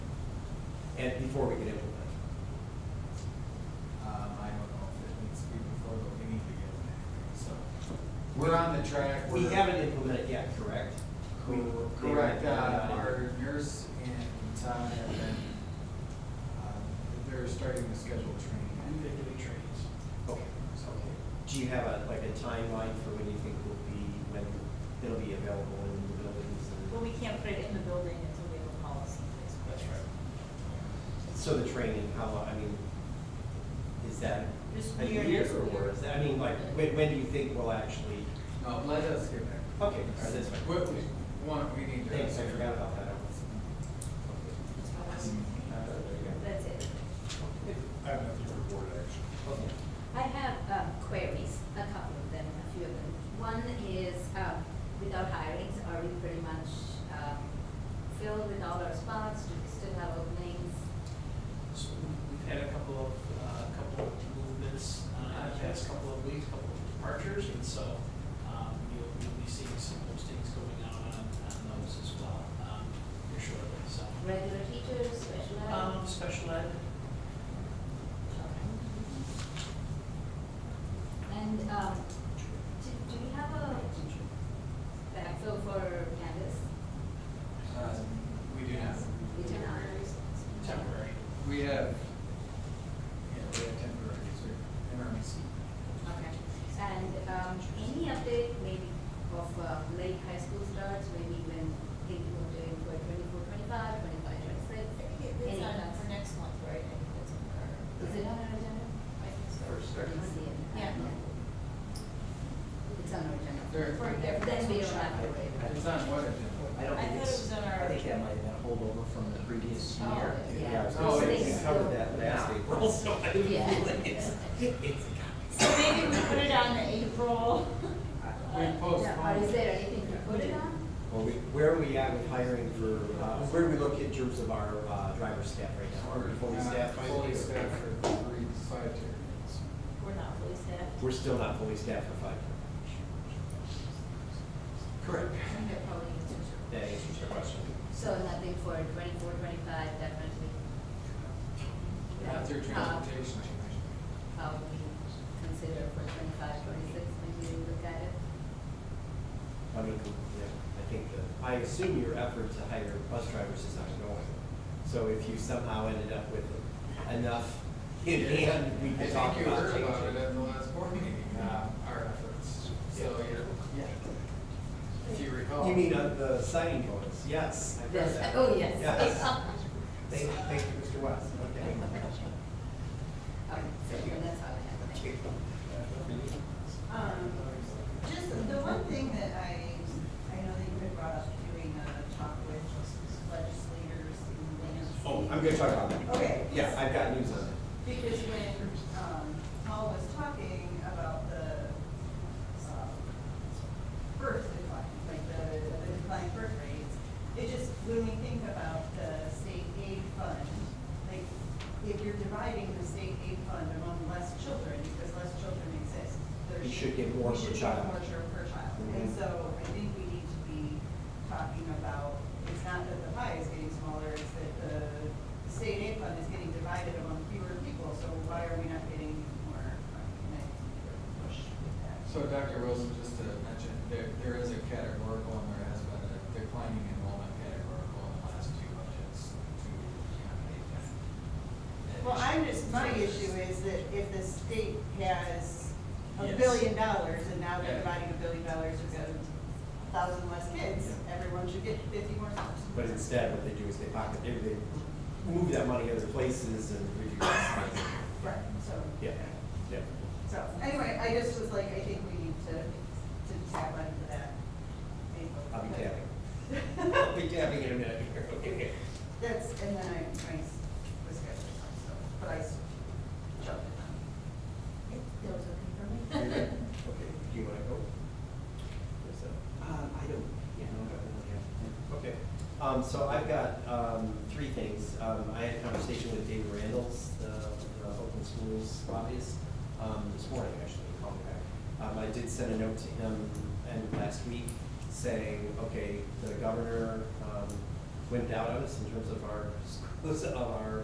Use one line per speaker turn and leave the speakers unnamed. and before we could implement.
Um, I don't know if it needs to be before, but we need to get it, so. We're on the track.
We
we're-
haven't implemented yet, correct? We- they
Correct,
haven't done
uh,
it.
our nurse and Tom have been, um, they're starting to schedule training.
They're doing trainings.
Okay. Do you have a, like a timeline for when you think will be, when it'll be available in the buildings? and-
Well, we can't put it in the building until we have a policy in place.
That's right. So the training, how, long? I mean, is that
Just
a
year,
year
just
or
year.
is that, I mean, like, when, when do you think we'll actually?
No, Uh, let us get back.
Okay, all right, that's fine.
We, we, one, we need to.
Thanks, I forgot about that. Uh, there you go.
That's it.
I have nothing to report, actually.
Okay.
I have um, queries, a couple of them, a few of them. One is, um, with our hirings, are we pretty much um, filled with all our spots? Do we still have openings?
So we've had a couple of, uh, couple of movements, uh, the past couple of weeks, couple of departures, and so, um, you'll, you'll be seeing some postings going out on, on those as well, um, here shortly, so.
Regular teachers, special ed?
Um, special ed,
And um, do do we have a backfill for Candace?
Um, We do not,
We do not.
temporary.
we have, yeah, we have temporaries, we in our MC.
Okay. And um, any update maybe of uh, late high school starts, maybe when people are doing for 24, 25, 25,
It's
26?
on for next month, right? I think that's on our-
Is it on our agenda?
I think so.
First,
Let me see it.
Yeah.
It's on our
There-
agenda. For- Then we don't have to wait.
It's on what agenda?
I don't
I
think
thought it
it's,
was on
I
our-
think that might have been a holdover from the previous
Oh,
year.
yeah.
Oh,
so
it
they
is.
covered that last April, so I didn't
Yeah.
feel it's- it's-
So maybe we put it on the April.
We
Now, Is
postponed,
there anything to put it on?
Well, we, where are we at with hiring for, uh, where do we look in terms of our, uh, driver staff right now? Are we fully
Uh,
staffed? by the
Fully
year?
staffed for three, five periods.
We're not fully staffed.
We're still not fully staffed for five. Correct.
I think that probably needs to-
That answers your question.
So nothing for 24, 25, definitely.
Not through
Uh,
transportation.
How we consider for 25, 26, maybe we look at it.
I mean, yeah, I think the, I assume your effort to hire bus drivers is ongoing. So if you somehow ended up with enough in hand, we
I
could talk
think you
about
heard about it
changing.
at the last board meeting, uh, our efforts, so you're, if you recall.
You mean uh, the signing bonus? Yes. I've heard
Yes.
that.
Oh, yes.
Yes. Thank, thank you, Mr. West. Okay.
Okay, so that's all I have. Thank you.
Um, Just the one thing that I, I know that you had brought up doing a talk with legislators in Lansing.
Oh, I'm gonna talk about that.
Okay.
Yeah, I've got news on it.
Because when, um, Paul was talking about the, um, birth decline, like the, the decline birth rates, it just, when we think about the state aid fund, like, if you're dividing the state aid fund among less children, because less children exist, there
You
should.
should get more
we
per
should get
child.
more chil- per child, and
Mhm.
so I think we need to be talking about, it's not that the pie is getting smaller, it's that the state aid fund is getting divided among fewer people, so why are we not getting more? And I think we're pushed with that.
So Dr. Wilson, just to mention, there, there is a categorical and there has been a declining enrollment categorical in the last two budgets to accommodate that.
Well, I'm just, my issue is that if the state has a
Yes.
billion dollars, and now
Yeah.
they're dividing a billion dollars, we've got a thousand less kids,
Yeah.
everyone should get fifty more dollars.
But instead, what they do is they pocket, they, they move that money other places and reduce expenses.
Right, so.
Yeah, yeah.
So, anyway, I just was like, I think we need to, to tap into that.
I'll be tapping. I'll
tapping.
be tapping in a minute here, okay?
That's, and then I, I was good, so, but I s- jumped it.
That was okay for
You're
me.
good? Okay, do you wanna go? Yes, sir.
Uh, I don't, yeah, no, I don't really have.
Okay, um, so I've got, um, three things. Um, I had a conversation with David Randalls, the, the Open Schools lobbyist, um, this morning, actually, he called me back. Um, I did send a note to him end of last week saying, okay, the governor, um, went out on us in terms of our, schools- of our